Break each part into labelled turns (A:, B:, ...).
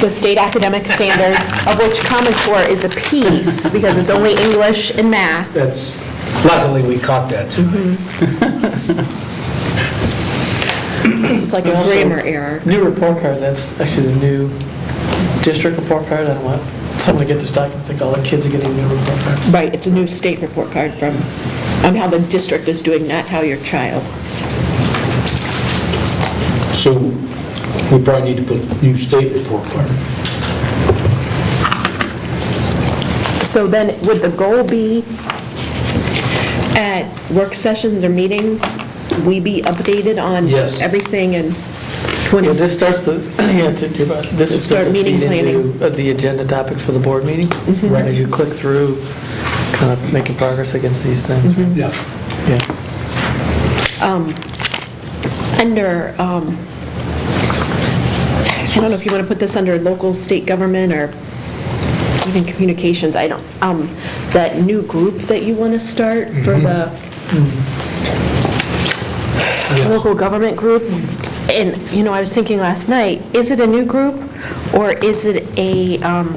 A: the state academic standards, of which Common Core is a piece, because it's only English and math.
B: That's, luckily, we caught that
A: Mm-hmm.
B: tonight.
A: It's like a
C: Also,
A: grammar error.
C: New report card, that's actually the new district report card, I don't want someone to get this document, think all the kids are getting new report cards.
A: Right, it's a new state report card from, on how the district is doing, not how your child.
B: So we probably need to put new state report card.
A: So then, would the goal be at work sessions or meetings, we be updated on
B: Yes.
A: everything and
C: Yeah,
A: 20,
C: this starts the, yeah, to, you're right. this is
A: Start
C: going to
A: meeting
C: feed
A: planning. Mm-hmm.
C: into uh, the agenda topics for the board meeting.
B: Right.
C: As you click through, kind of making progress against these things.
A: Mm-hmm.
B: Yeah.
C: Yeah.
A: under, um, I don't know if you want to put this under local, state government, or even communications, I don't, um, that new group that you want to start for the
C: Mm-hmm.
A: local government group. And, you know, I was thinking last night, is it a new group or is it a um,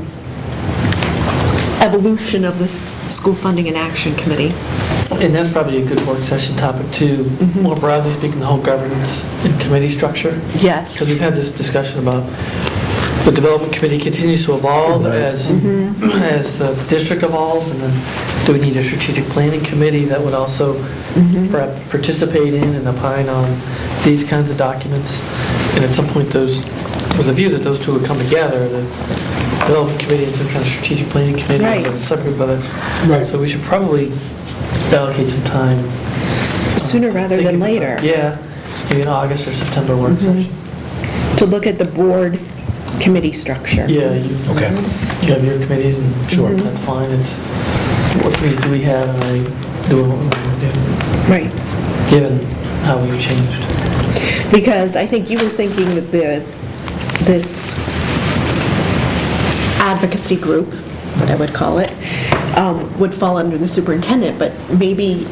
A: evolution of this school funding and action committee?
C: And that's probably a good work session topic too,
A: Mm-hmm.
C: more broadly speaking, the whole governance and committee structure.
A: Yes.
C: Because we've had this discussion about the development committee continues to evolve
B: Right.
C: as,
A: Mm-hmm.
C: as the district evolves, and then do we need a strategic planning committee that would also
A: Mm-hmm.
C: perhaps participate in and opine on these kinds of documents? And at some point, those, was a view that those two would come together, the development committee and some kind of strategic planning committee,
A: Right.
C: and a subgroup of it.
B: Right.
C: uh, So we should probably allocate some time uh,
A: Sooner rather than
C: thinking about-
A: later. Mm-hmm.
C: Yeah, maybe an August or September work session.
A: To look at the board committee structure.
C: Yeah, you
B: Okay.
C: you have your committees and.
B: Sure.
C: That's fine, it's, what committees do we have, and I do what we want to do,
A: Right.
C: given how we've changed.
A: Because I think you were thinking that the, this advocacy group, what I would call it, um, would fall under the superintendent, but maybe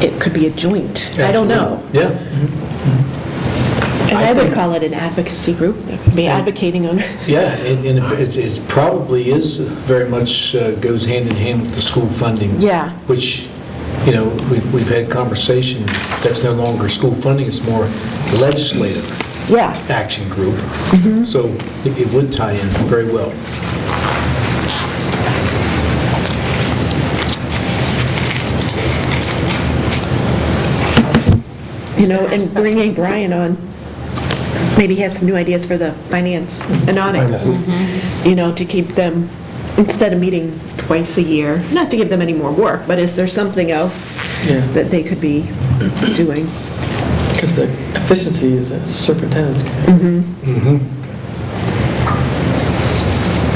A: it could be a joint. I don't know.
B: Absolutely. Yeah,
A: And
B: I
A: I would
B: think-
A: call it an advocacy group, be advocating on,
B: yeah, and and it it's probably is very much uh, goes hand in hand with the school funding.
A: Yeah.
B: Which, you know, we- we've had conversation, that's no longer school funding, it's more legislative
A: yeah.
B: action group.
A: Mm-hmm.
B: So it it would tie in very well.
A: You know, and bringing Brian on, maybe he has some new ideas for the finance and audit, Mm-hmm. you know, to keep them, instead of meeting twice a year, not to give them any more work, but is there something else
C: Yeah.
A: that they could be doing?
C: Because the efficiency is a superintendent's.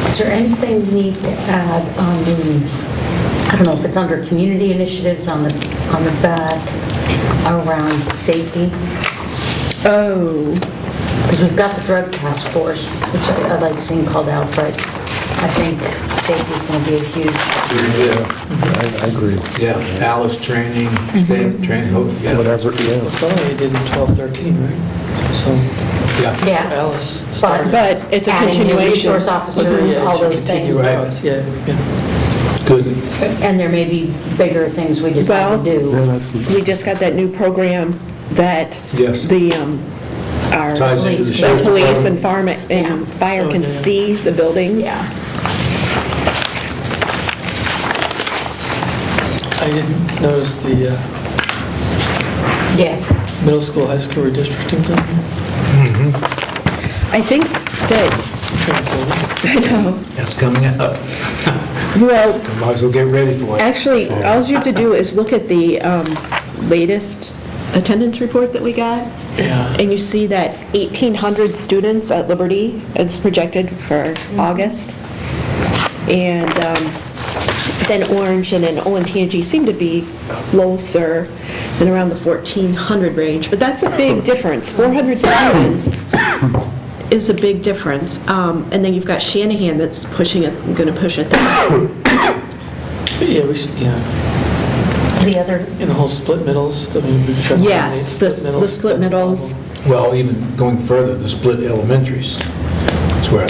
D: Is there anything we need to add on the, I don't know if it's under community initiatives on the, on the back around safety?
A: Oh,
D: Because we've got the drug task force, which I I like seeing called out, but I think safety's going to be a huge,
E: I I agree.
B: Yeah, Alice training,
A: Mm-hmm.
B: staff training, oh, yeah,
E: Whatever, yeah.
C: Somebody did in 12, 13, right? So
B: yeah.
D: yeah.
C: Alice started.
A: but it's a
D: Adding new
A: continuation.
D: resource officers, all those things.
B: right.
C: Yeah, yeah.
B: Good.
D: And there may be bigger things we decide to
E: Yeah,
D: do.
E: that's-
A: We just got that new program that
B: Yes.
A: the, um, our,
B: Ties into the
D: Police.
A: the
B: sheriff's
A: police and
B: department.
A: farm and
D: Yeah.
A: fire can
C: Oh, yeah.
A: see the buildings.
D: Yeah.
C: I didn't notice the uh,
D: Yeah.
C: middle school, high school redistricting thing.
A: I think that, I know,
B: That's coming up.
A: well,
B: Might as well get ready for it.
A: Actually, all you have to do is look at the um, latest attendance report that we got,
C: Yeah.
A: and you see that 1,800 students at Liberty is projected for August. And um, then Orange and then ONTNG seem to be closer and around the 1,400 range, but that's a big difference. 400 students is a big difference. Um, And then you've got Shanahan that's pushing it, going to push it that.
C: Yeah, we should, yeah.
D: The other,
C: And the whole split middles, I mean, we tried to eliminate
A: Yes, the the
C: middles,
A: split
C: that's a problem.
A: middles.
B: Well, even going further, the split elementaries, that's where I